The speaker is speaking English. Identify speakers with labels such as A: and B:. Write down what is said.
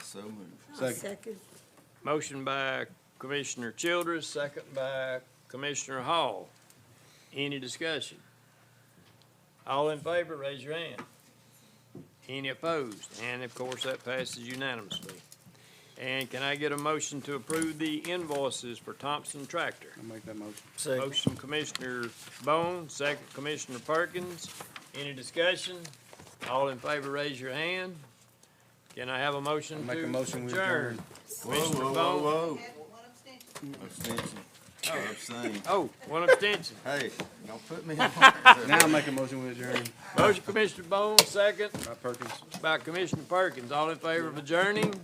A: So moved.
B: Second.
C: Motion by Commissioner Childress, second by Commissioner Hall. Any discussion? All in favor, raise your hand. Any opposed? And of course, that passes unanimously. And can I get a motion to approve the invoices for Thompson Tractor?
B: I'll make that motion.
C: Motion Commissioner Bone, second Commissioner Perkins. Any discussion? All in favor, raise your hand. Can I have a motion
B: Make a
C: to
B: motion we
C: adjourn?
B: adjourn.
C: Commissioner Bone?
A: whoa. Abstention. Oh, abstain.
C: Oh, one abstention.
A: Hey, don't put me on.
B: Now I'll make a motion we adjourn.
C: Motion Commissioner Bone, second
B: By Perkins.
C: by Commissioner Perkins. All in favor of adjourning?